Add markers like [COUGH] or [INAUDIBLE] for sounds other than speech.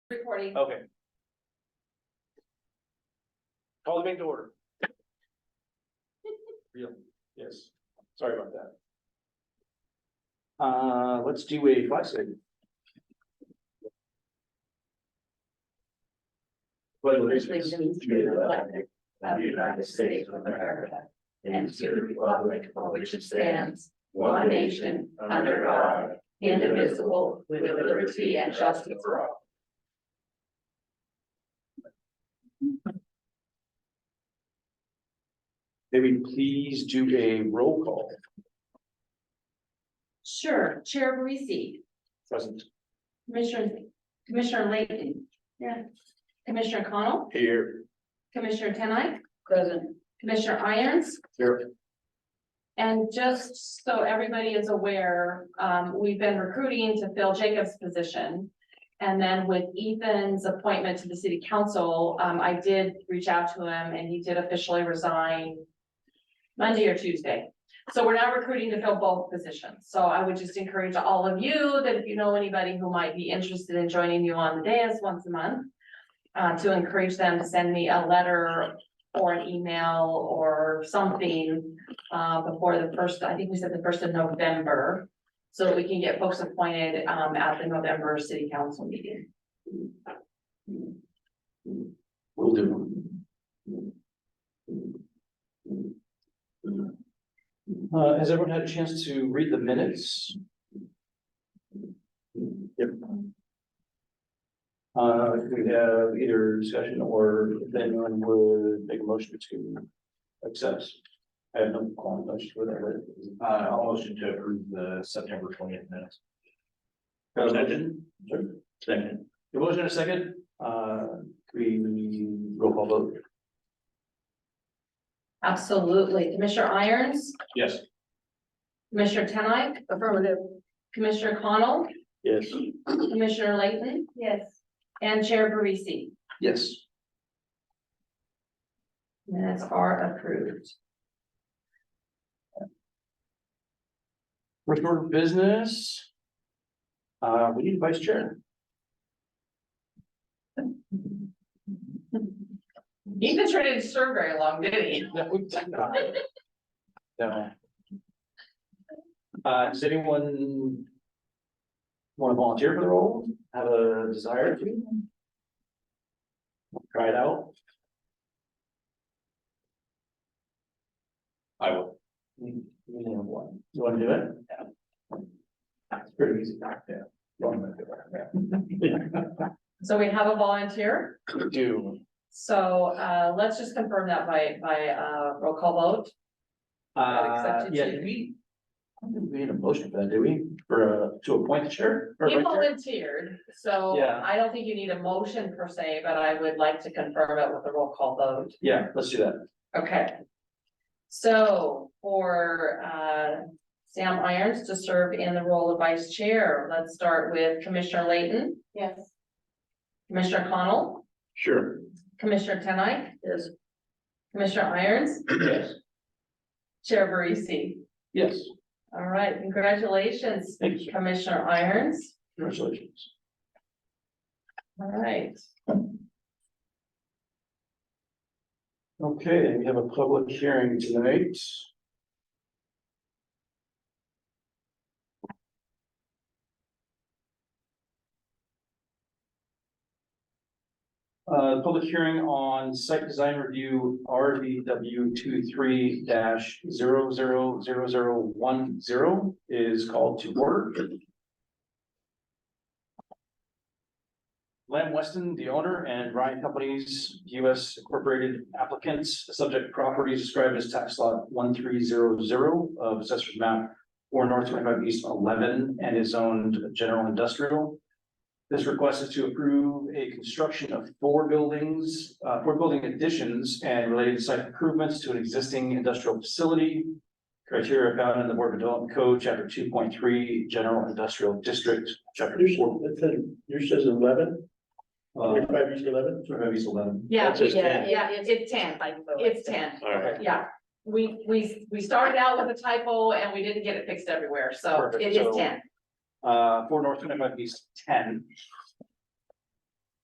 Recording. Okay. Call the meeting to [LAUGHS] order. Real, yes, sorry about that. Uh, let's do a flag statement. Pledge allegiance to the flag of the United States of America and to the republic for which it stands, one nation, under God, indivisible, with liberty and justice for all. May we please do a roll call, Sure, Chair Parisi, present Commissioner, Commissioner Layton. Yeah. Commissioner Connell, here, Commissioner Tenai. Present. Commissioner Irons, here, and just so everybody is aware, um, we've been recruiting to fill Jacob's position. And then with Ethan's appointment to the city council, um, I did reach out to him and he did officially resign Monday or Tuesday. So we're now recruiting to fill both positions. So I would just encourage all of you that if you know anybody who might be interested in joining you on the dais once a month, uh, to encourage them to send me a letter or an email or something, uh, before the first, I think we said the first of November. So that we can get folks appointed, um, at the November city council meeting. will do. Uh, has everyone had a chance to read the minutes? Yep. Uh, we have either discussion or if anyone would make a motion to accept. I have no qualms, I just would have read it. Uh, I'll motion to approve the September twentieth minutes. Got a motion? Second. The motion and a second, uh, we roll call vote. Absolutely. Commissioner Irons, Yes. Commissioner Tenai. Affirmative. Commissioner Connell, Yes. Commissioner Layton. Yes. And Chair Parisi. Yes. Minutes are approved. First order of business. Uh, we need a vice chair. Ethan sure didn't serve very long, did he? No, we did not. No. Uh, does anyone? Want to volunteer for the role? Have a desire to? Try it out? I will. You you can have one. You want to do it? Yeah. That's pretty easy back there. So we have a volunteer, Do. so uh let's just confirm that by by uh roll call vote. Uh, accepted yeah, too. did we? I don't think we need a motion for that, do we? For, uh, to appoint the chair? or He vice chair? volunteered, so Yeah. I don't think you need a motion per se, but I would like to confirm it with a roll call vote. Yeah, let's do that. Okay. So for uh Sam Irons to serve in the role of vice chair, let's start with Commissioner Layton. Yes. Commissioner Connell, Sure. Commissioner Tenai. Yes. Commissioner Irons, Yes. Chair Barisi. Yes, All right, congratulations, thank you, Commissioner Irons. congratulations. All right, Okay, we have a public hearing tonight. Uh, public hearing on site design review RVW 23 dash zero zero zero zero one zero is called to order. Lamb Weston, the owner, and Ryan Companies, US Incorporated applicants, the subject property is described as tax lot one three zero zero of assessor's map or north twenty-five east eleven and is zoned general industrial. This request is to approve a construction of four buildings, uh, four building additions and related site improvements to an existing industrial facility. Criteria found in the Board of Development Code, chapter two point three, general industrial district, chapter Yours four. it says, yours says eleven, uh, twenty-five east eleven, Sort of eleven. yeah, That's just yeah, ten. yeah, it's ten, it's ten, Okay. yeah. We, we, we started out with a typo and we didn't get it fixed everywhere, so Perfect, it is so- ten. Uh, four north twenty-five east ten,